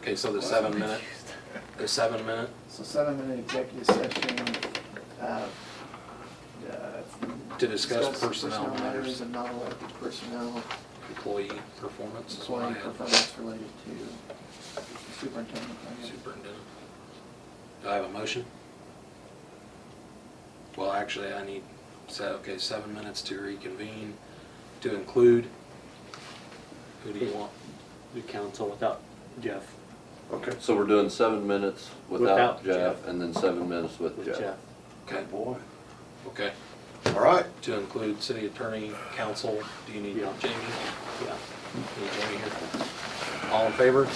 Okay, so the seven minute, the seven minute, So seven minute executive session, uh, uh, To discuss personnel matters. matters and non-elected personnel, employee performance is what I employee have. performance related to superintendent. Superintendent. Do I have a motion? Well, actually, I need, so, okay, seven minutes to reconvene, to include. Who do you want? the council without Jeff, Okay. So we're doing seven minutes without Without Jeff and then seven minutes with with Jeff. Jeff. Okay, boy. okay. All right, To include city attorney, council, do you need Yeah. Jamie? Yeah. Need Jamie here? All in favor?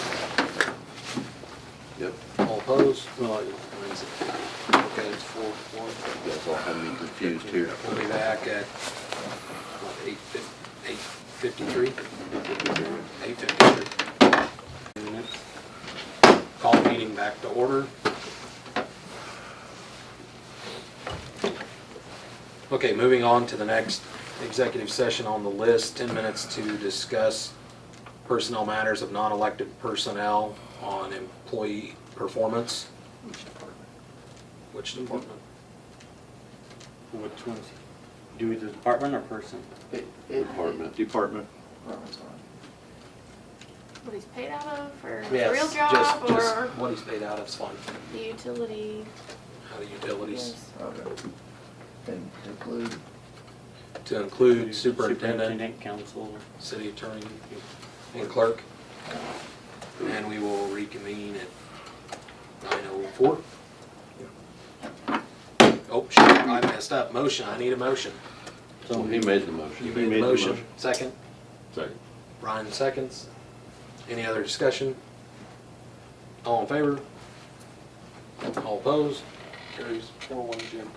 Yep, All opposed? Well, it's- Okay, it's four, one. you guys all have me confused here. We'll be back at what, eight fif- eight fifty-three? Eight fifty-three. Call meeting back to order. Okay, moving on to the next executive session on the list, ten minutes to discuss personnel matters of non-elected personnel on employee performance. Which department? Which ones? Do we do department or person? It, it. Department. department. Robert's one. what he's paid out of, or his Yes, real job, just, just or what he's paid out of's fine. the utility. How the utilities, Yes. Okay. And include, to include superintendent, Superintendent, council. city attorney, and clerk. And we will reconvene at nine oh four. Oh, shit, I messed up. Motion, I need a motion. So he made the motion. You made the motion. Second? Second. Ryan seconds. Any other discussion? All in favor? All opposed? Carries four one, Jim.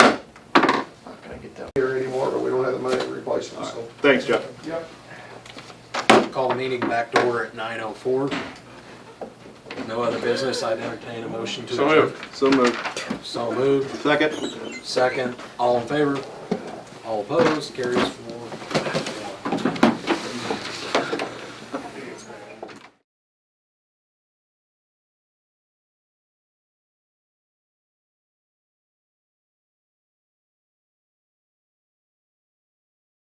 how can I get that? here anymore, but we don't have the money to replace them, so. Thanks, Jeff. Yep. Call the meeting back to order at 9:04. No other business, I'd entertain a motion to adjourn. So moved. So moved, Second? second, all in favor? All opposed, carries 4-1.